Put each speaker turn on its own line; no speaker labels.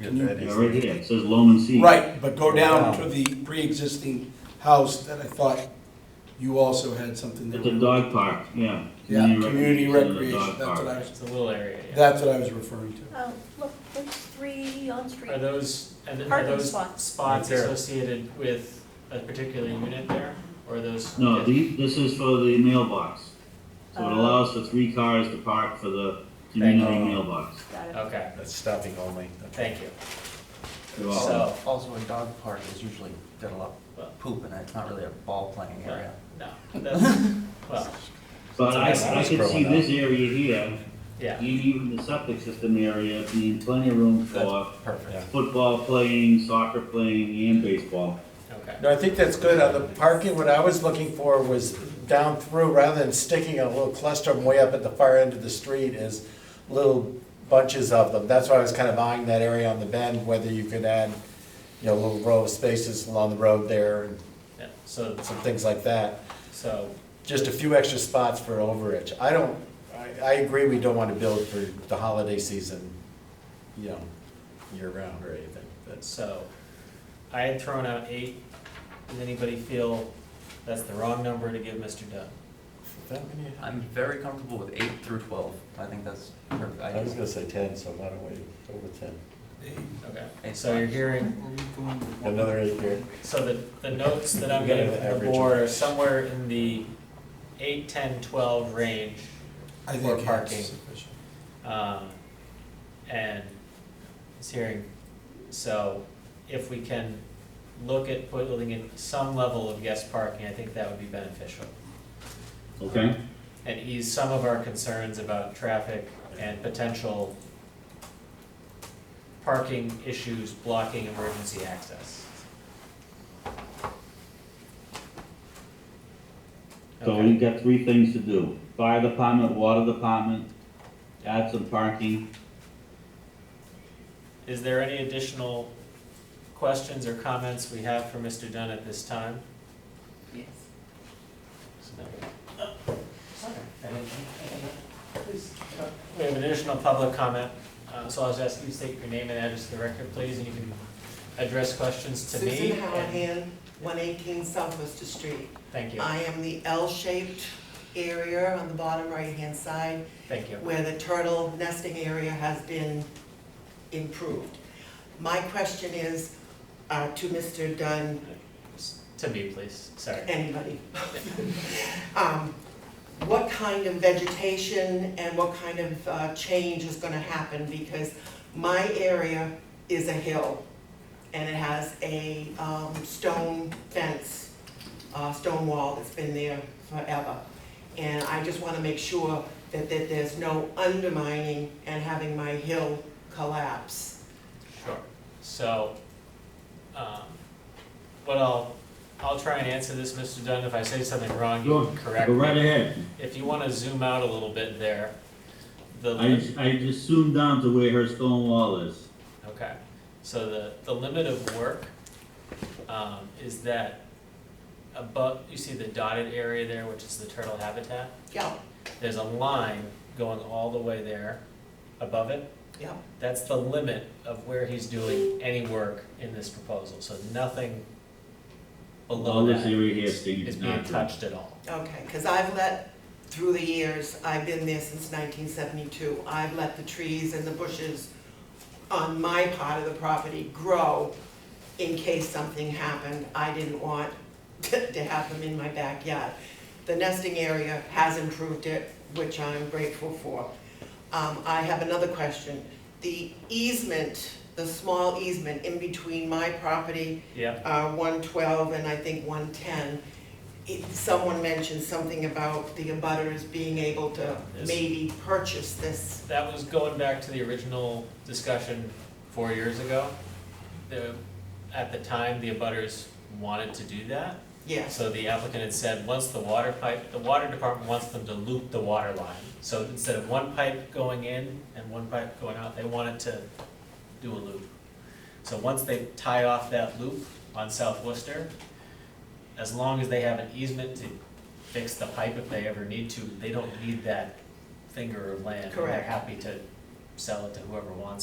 Can you-
Yeah, right here, it says loam and seed.
Right, but go down to the pre-existing house that I thought you also had something
At the
there.
dog park, yeah.
Yeah, community
at the
recreation,
dog
that's what
park.
I,
It's a little area, yeah.
that's what I was referring to.
Oh, look, it's three on street.
Are those, and are
Parking
those
spots.
spots
Right there.
associated with a particular unit there? Or those?
No, the, this is for the mailbox. So it
Oh.
allows for three cars to park for the community
you.
mailbox.
Got it.
Okay,
That's stopping only.
thank you.
They're all-
So,
Also, a dog park is usually got a lot of poop in it, it's not really a ball playing area.
no, that's, well,
But I,
That's-
I
that's
could see
growing up.
this area here,
yeah.
and even the septic system area, being plenty of room for
That's perfect.
Yeah.
football playing, soccer playing, and baseball.
Okay.
No, I think that's good. Uh, The parking, what I was looking for was down through, rather than sticking a little cluster of 'em way up at the far end of the street is little bunches of them. That's why I was kind of eyeing that area on the bend, whether you could add, you know, a little row of spaces along the road there and
Yeah, so,
some things like that.
so,
Just a few extra spots for overage. I don't, I, I agree, we don't want to build for the holiday season, you know, year round or anything. That's,
so, I had thrown out eight. Does anybody feel that's the wrong number to give Mr. Dunn?
I'm very comfortable with eight through twelve, I think that's perfect.
I was gonna say ten, so why don't we go with ten?
Okay, so you're hearing,
Another eight here.
so the, the notes that I'm
You gotta
getting from the
average
board are somewhere in the eight, ten, twelve range.
I
For
think that's
parking.
sufficient.
Um, and it's hearing, so if we can look at putting in some level of guest parking, I think that would be beneficial.
Okay?
And ease some of our concerns about traffic and potential parking issues blocking emergency access.
So
Okay.
we've got three things to do. Fire department, water department, add some parking.
Is there any additional questions or comments we have for Mr. Dunn at this time?
Yes.
We have an additional public comment, uh, so I'll just ask you to state your name and address to the record, please, and you can address questions to me.
Susan
and-
Hallahan, one eighteen Southwest Street.
Thank you,
I am the L-shaped area on the bottom right-hand side
thank you.
where the turtle nesting area has been improved. My question is, uh, to Mr. Dunn,
S- To me, please, sorry.
anybody, um, what kind of vegetation and what kind of, uh, change is gonna happen? Because my area is a hill and it has a, um, stone fence, uh, stone wall that's been there forever. And I just wanna make sure that, that there's no undermining and having my hill collapse.
Sure. So, um, what I'll, I'll try and answer this, Mr. Dunn, if I say something wrong, you can correct
Go
me.
right ahead.
If you wanna zoom out a little bit there, the.
I, I just zoomed down to where her stone wall is.
Okay, so the, the limit of work, um, is that above, you see the dotted area there, which is the turtle habitat?
Yeah,
There's a line going all the way there above it.
yeah,
That's the limit of where he's doing any work in this proposal, so nothing below
All this
that
area here is being
is being touched at all.
okay, because I've let, through the years, I've been there since nineteen seventy-two, I've let the trees and the bushes on my part of the property grow in case something happened. I didn't want to to have them in my backyard. The nesting area has improved it, which I'm grateful for. Um, I have another question. The easement, the small easement in between my property
Yeah,
uh, 112 and I think 110, it- someone mentioned something about the abutters being able to
Yes.
maybe purchase this.
that was going back to the original discussion four years ago. The, at the time, the abutters wanted to do that.
Yes,
So the applicant had said, once the water pipe, the water department wants them to loop the water line. So instead of one pipe going in and one pipe going out, they wanted to do a loop. So once they tie off that loop on South Worcester, as long as they have an easement to fix the pipe if they ever need to, they don't need that finger of land. And They're
Correct.
happy to sell it to whoever wants it.